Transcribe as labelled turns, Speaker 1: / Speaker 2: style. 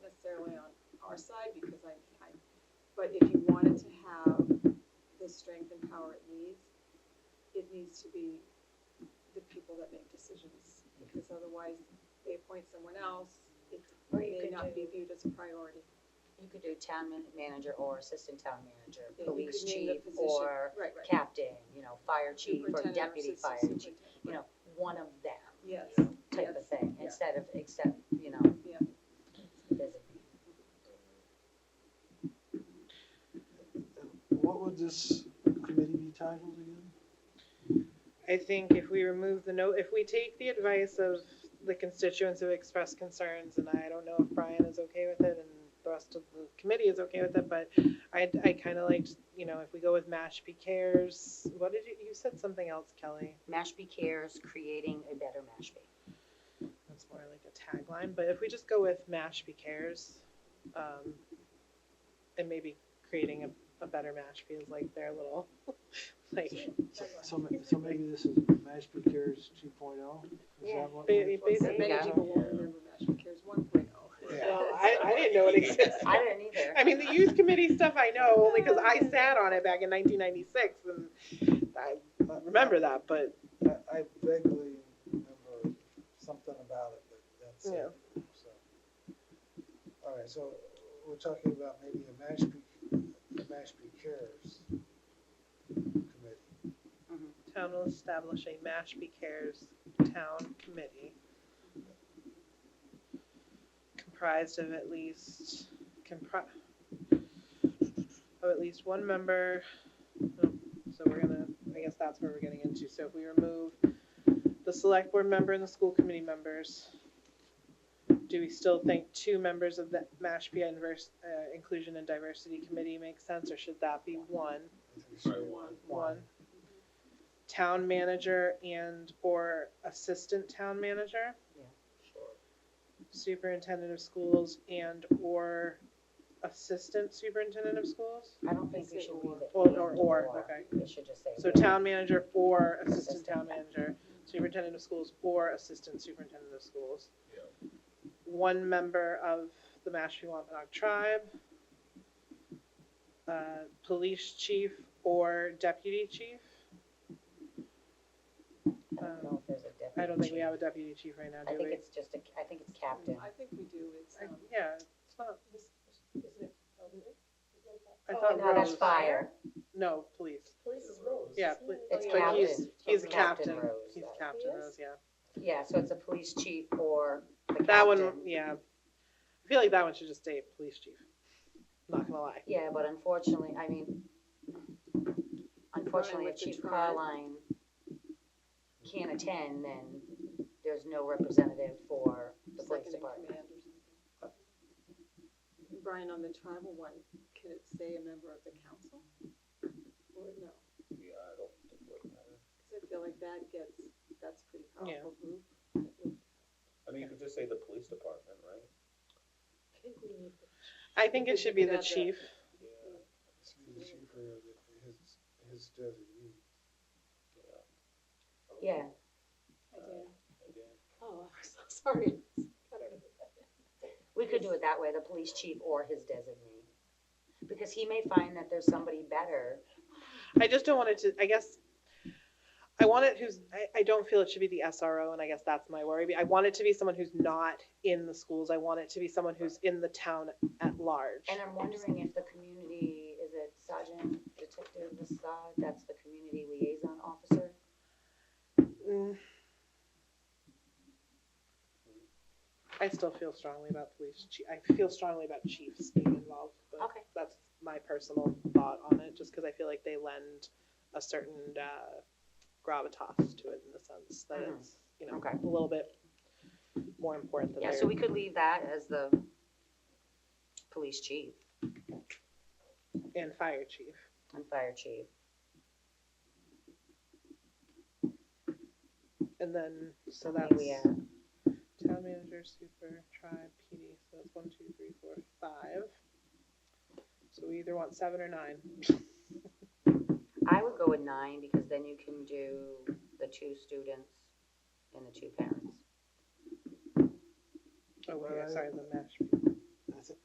Speaker 1: our side because I, I, but if you wanted to have the strength and power it needs, it needs to be the people that make decisions, because otherwise they appoint someone else, it
Speaker 2: Or you
Speaker 1: may
Speaker 2: could
Speaker 1: not
Speaker 2: do-
Speaker 1: be viewed as a priority.
Speaker 2: You could do town man- manager or assistant town manager,
Speaker 1: Yeah, you
Speaker 2: police
Speaker 1: could name the
Speaker 2: chief
Speaker 1: position.
Speaker 2: or
Speaker 1: Right, right.
Speaker 2: captain, you know, fire chief or
Speaker 1: Superintendent
Speaker 2: deputy
Speaker 1: assistant
Speaker 2: fire chief,
Speaker 1: superintendent.
Speaker 2: you know, one of them
Speaker 1: Yes,
Speaker 2: type of
Speaker 1: Yes.
Speaker 2: thing,
Speaker 1: Yeah.
Speaker 2: instead of, except, you know.
Speaker 1: Yeah.
Speaker 2: designate.
Speaker 3: What would this committee be titled again?
Speaker 4: I think if we remove the note, if we take the advice of the constituents who expressed concerns, and I don't know if Brian is okay with it and the rest of the committee is okay with it, but I, I kind of liked, you know, if we go with Mashpee Cares, what did you, you said something else, Kelly.
Speaker 2: Mashpee Cares, creating a better Mashpee.
Speaker 4: That's more like a tagline, but if we just go with Mashpee Cares, um, and maybe creating a, a better Mashpee is like their little, like,
Speaker 3: So- So, ma- so maybe this is Mashpee Cares two oh? Is
Speaker 2: Yeah.
Speaker 3: that what?
Speaker 4: Ba-
Speaker 1: But many
Speaker 2: Yeah.
Speaker 1: people won't remember Mashpee Cares one oh.
Speaker 3: Yeah.
Speaker 4: well, I, I didn't know it existed.
Speaker 2: I didn't either.
Speaker 4: I mean, the youth committee stuff I know only because I sat on it back in 1996 and I remember that, but
Speaker 3: I I vaguely remember something about it, but that's it. So, All right, so we're talking about maybe a Mashpee, a Mashpee Cares committee.
Speaker 4: town will establish a Mashpee Cares Town Committee comprised of at least, compri- of at least one member. Oh, So we're gonna, I guess that's where we're getting into. So if we remove the select board member and the school committee members, do we still think two members of the Mashpee Invers- uh, Inclusion and Diversity Committee makes sense, or should that be one?
Speaker 3: I think it should
Speaker 5: Right,
Speaker 3: be
Speaker 5: one.
Speaker 4: One. town manager and or assistant town manager, superintendent of schools and or assistant superintendent of schools?
Speaker 2: I don't think we should leave it.
Speaker 4: Or-
Speaker 2: and
Speaker 4: or- or, okay.
Speaker 2: We should just say.
Speaker 4: So
Speaker 2: or.
Speaker 4: town manager or assistant town manager, superintendent of schools or assistant superintendent of schools.
Speaker 5: Yeah.
Speaker 4: One member of the Mashpee Wampanoag tribe, uh, police chief or deputy chief.
Speaker 2: I don't know if there's a deputy.
Speaker 4: um, I don't think we
Speaker 2: chief.
Speaker 4: have a deputy chief right now,
Speaker 2: I
Speaker 4: do
Speaker 2: think
Speaker 4: we?
Speaker 2: it's just a, I think it's captain.
Speaker 1: I think we do, it's,
Speaker 4: I-
Speaker 1: um,
Speaker 4: Yeah, it's not,
Speaker 6: Isn't it elderly?
Speaker 4: I
Speaker 6: Oh,
Speaker 4: thought
Speaker 2: No, that's
Speaker 4: Rose-
Speaker 2: fire.
Speaker 4: No, police.
Speaker 6: Police is Rose.
Speaker 4: Yeah, poli-
Speaker 2: It's
Speaker 4: but
Speaker 2: captain.
Speaker 4: he's- He's
Speaker 2: Captain
Speaker 4: captain,
Speaker 2: Rose,
Speaker 4: he's
Speaker 2: that-
Speaker 4: captain
Speaker 6: He is?
Speaker 4: Rose, yeah.
Speaker 2: Yeah, so it's a police chief or the captain.
Speaker 4: That one, yeah. I feel like that one should just stay police chief. Not gonna lie.
Speaker 2: Yeah, but unfortunately, I mean, unfortunately,
Speaker 1: with
Speaker 2: if
Speaker 1: the
Speaker 2: Chief
Speaker 1: tribe.
Speaker 2: Carline can't attend, then there's no representative for the police
Speaker 1: second in
Speaker 2: department.
Speaker 1: command or something. Brian, on the tribal one, could it say a member of the council? Or no,
Speaker 5: Yeah, I don't think it would matter.
Speaker 1: because I feel like that gets, that's pretty
Speaker 4: Yeah.
Speaker 1: powerful group.
Speaker 5: I mean, you could just say the police department, right?
Speaker 6: I think we need to
Speaker 4: I think it should be the
Speaker 1: Yeah, the-
Speaker 4: chief.
Speaker 5: Yeah.
Speaker 3: It's the chief or the- his, his designee.
Speaker 2: Yeah,
Speaker 1: Uh,
Speaker 5: Again,
Speaker 6: Oh, I'm so sorry. I don't know.
Speaker 2: we could do it that way, the police chief or his designee. Because he may find that there's somebody better.
Speaker 4: I just don't want it to, I guess, I want it who's, I, I don't feel it should be the SRO, and I guess that's my worry. I want it to be someone who's not in the schools. I want it to be someone who's in the town at large.
Speaker 2: And I'm wondering if the community, is it Sergeant Detective Assad, that's the community liaison officer?
Speaker 4: Mm. I still feel strongly about police chief. I feel strongly about chiefs being involved, but
Speaker 2: Okay.
Speaker 4: that's my personal thought on it, just because I feel like they lend a certain uh, gravitas to it in the sense that
Speaker 2: Mhm.
Speaker 4: it's you know
Speaker 2: Okay.
Speaker 4: a little bit more important than
Speaker 2: Yeah, so
Speaker 4: their-
Speaker 2: we could leave that as the police chief
Speaker 4: and fire chief.
Speaker 2: and fire chief.
Speaker 4: And then so
Speaker 2: Maybe
Speaker 4: that's
Speaker 2: we add-
Speaker 4: town manager, super, tribe, PD. So that's one, two, three, four, five. So we either want seven or nine.
Speaker 2: I would go with nine because then you can do the two students and the two parents.
Speaker 4: Oh, wait,
Speaker 3: Well,
Speaker 4: Oh, sorry, the Mashpee.